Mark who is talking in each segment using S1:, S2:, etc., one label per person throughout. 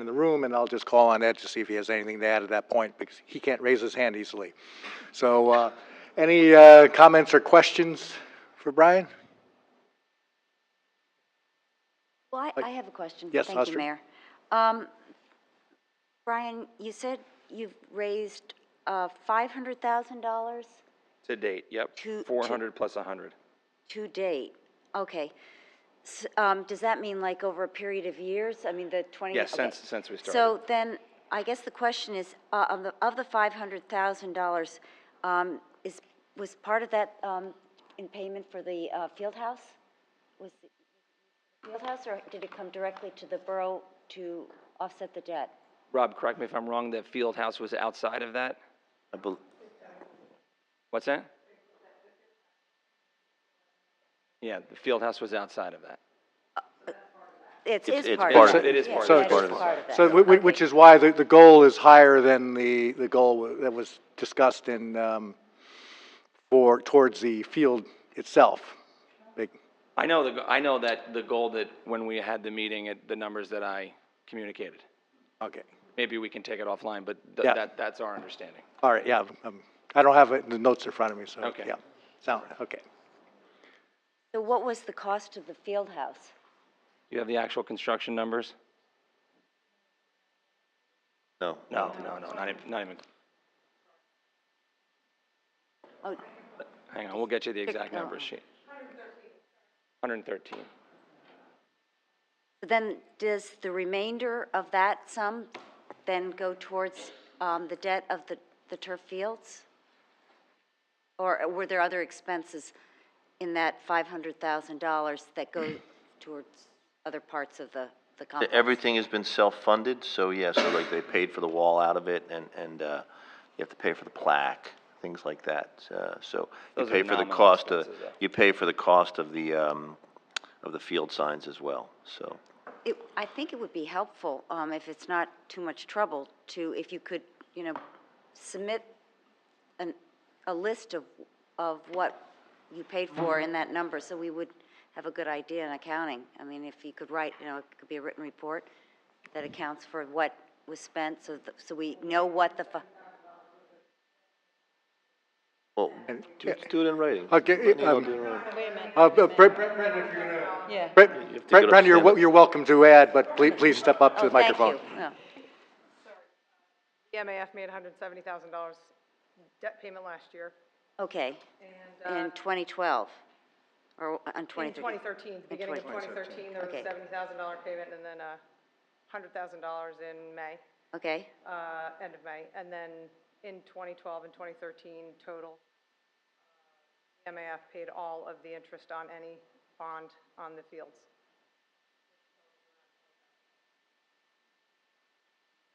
S1: in the room, and I'll just call on Ed to see if he has anything to add at that point, because he can't raise his hand easily. So, uh, any, uh, comments or questions for Brian?
S2: Well, I, I have a question.
S1: Yes,
S2: Thank
S1: Astrid?
S2: you, Mayor. Um, Brian, you said you've raised, uh, five hundred thousand dollars
S3: To date, yep.
S2: To- to-
S3: Four hundred plus a hundred.
S2: to date. Okay. S um, does that mean like over a period of years? I mean, the twenty?
S3: Yeah,
S2: okay.
S3: since- since we
S2: So
S3: started.
S2: then, I guess the question is, uh, of the, of the five hundred thousand dollars, um, is, was part of that, um, in payment for the, uh, field house? Was it field house, or did it come directly to the borough to offset the debt?
S3: Rob, correct me if I'm wrong, that field house was outside of that?
S4: I bel-
S3: What's that? Yeah, the field house was outside of that.
S2: It's,
S4: It's-
S2: is
S4: it's
S2: part
S4: part
S2: of
S4: of
S2: it.
S4: it. It
S3: is
S2: Yeah,
S3: part of
S1: So-
S2: that
S4: Part of it.
S2: part of that.
S1: So, whi- whi- which is why the, the goal is higher than the, the goal wa- that was discussed in, um, for, towards the field itself. Big-
S3: I know the, I know that the goal that when we had the meeting, it- the numbers that I communicated.
S1: Okay,
S3: Maybe we can take it offline, but th-
S1: Yeah.
S3: that, that's our understanding.
S1: all right, yeah, um, I don't have it, the notes in front of me, so,
S3: Okay.
S1: yeah. Sound, okay.
S2: So what was the cost of the field house?
S3: You have the actual construction numbers?
S4: No.
S3: No, no, no, not even, not even,
S2: Oh,
S3: hang on, we'll get you the exact number
S2: oh.
S3: sheet. Hundred and thirteen.
S2: Then does the remainder of that sum then go towards um, the debt of the the turf fields? Or were there other expenses in that $500,000 that go towards other parts of the the complex?
S4: Everything has been self-funded, so yeah, so like they paid for the wall out of it and, and, uh, you have to pay for the plaque, things like that, uh, so. You
S3: Those are
S4: pay for the
S3: nominal
S4: cost of,
S3: expenses, though.
S4: you pay for the cost of the, um, of the field signs as well, so.
S2: It- I think it would be helpful, um, if it's not too much trouble, to, if you could, you know, submit an, a list of, of what you paid for in that number, so we would have a good idea in accounting. I mean, if you could write, you know, it could be a written report that accounts for what was spent, so, th- so we know what the, fu-
S4: Well, do do it in writing.
S1: Okay,
S4: Maybe I'll
S1: um,
S4: do it in writing.
S1: Uh, Brent, Brent, Brent, if you're
S5: Yeah.
S1: Brent,
S4: have to
S1: Brent,
S4: get
S1: Brent, you're,
S4: upstanding.
S1: wel- you're welcome to add, but please, please step up to
S2: oh,
S1: the
S2: thank
S1: microphone.
S2: you. Oh.
S5: The MAF made hundred and seventy thousand dollars debt payment last year.
S2: Okay,
S5: And, uh,
S2: in 2012, or uh, on
S5: in
S2: 2013?
S5: twenty thirteen, beginning of twenty thirteen, there was
S2: Okay.
S5: a seventy thousand dollar payment and then a hundred thousand dollars in May,
S2: Okay,
S5: uh, end of May. And then in twenty twelve and twenty thirteen total, uh, the MAF paid all of the interest on any bond on the fields.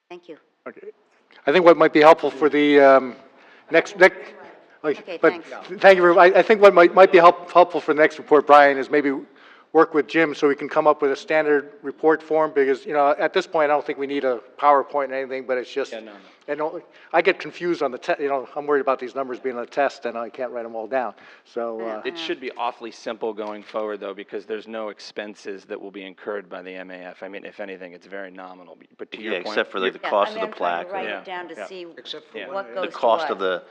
S2: thank you.
S1: Okay. I think what might be helpful for the, um, next, next, like,
S2: Okay,
S1: but,
S2: thanks.
S1: th- thank you, very- I, I think what might, might be help, helpful for the next report, Brian, is maybe work with Jim so we can come up with a standard report form, because, you know, at this point, I don't think we need a PowerPoint or anything, but it's just.
S3: Yeah, no, no.
S1: And don't- I get confused on the te, you know, I'm worried about these numbers being a test, and I can't write them all down, so, uh.
S3: It should be awfully simple going forward, though, because there's no expenses that will be incurred by the MAF. I mean, if anything, it's very nominal, but to
S4: Yeah,
S3: your point.
S4: except for
S3: you're-
S4: like
S2: Yeah,
S4: the
S2: I
S4: cost of
S2: mean,
S4: the plaque.
S2: I'm trying to
S3: Yeah,
S2: write it down to see
S3: Yeah.
S2: what goes to
S4: The
S2: what.
S4: cost of the,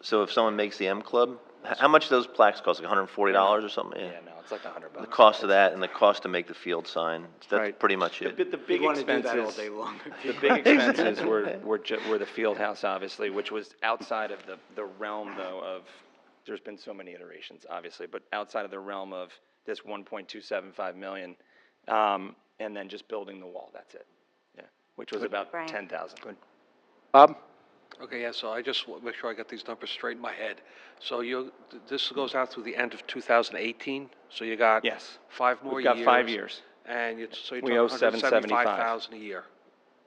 S4: so if someone makes the M Club, h- how much do those plaques cost, like hundred and forty dollars or something?
S3: Yeah, no, it's like a hundred
S4: The
S3: bucks.
S4: cost of that and the cost to make the field sign, that's
S1: Right.
S4: pretty much
S3: The,
S4: it.
S3: bi- the big
S6: wanna do that
S3: expenses.
S6: all day long.
S3: The big expenses were, were ju, were the field house, obviously, which was outside of the, the realm, though, of, there's been so many iterations, obviously, but outside of the realm of this one point two seven five million, um, and then just building the wall, that's it. Yeah, which was about
S2: Brian.
S3: ten thousand.
S1: Bob?
S7: Okay, yeah, so I just want to make sure I got these numbers straight in my head. So you, this goes out through the end of 2018, so you got.
S3: Yes.
S7: Five
S3: We've
S7: more years.
S3: got five years.
S7: And you, so you're
S3: We
S7: talking
S3: owe 775.
S7: 175,000 a year.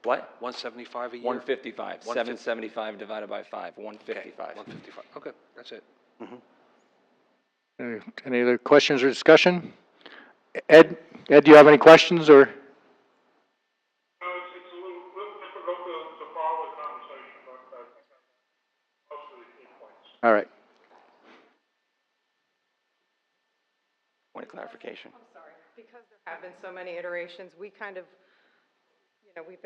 S3: What?
S7: 175 a year?
S3: One fifty-five,
S7: One
S3: seven
S7: fif-
S3: seventy-five divided by five, one
S7: Okay,
S3: fifty-five.
S7: 155, okay, that's it.
S1: Any any other questions or discussion? Ed, Ed, do you have any questions or?
S8: No, it's, it's a little, little difficult to, to follow the conversation, but uh, I think I most of the key points.
S1: All right.
S3: Point of clarification.
S5: Sorry, because there have been so many iterations, we kind of, you know, we've been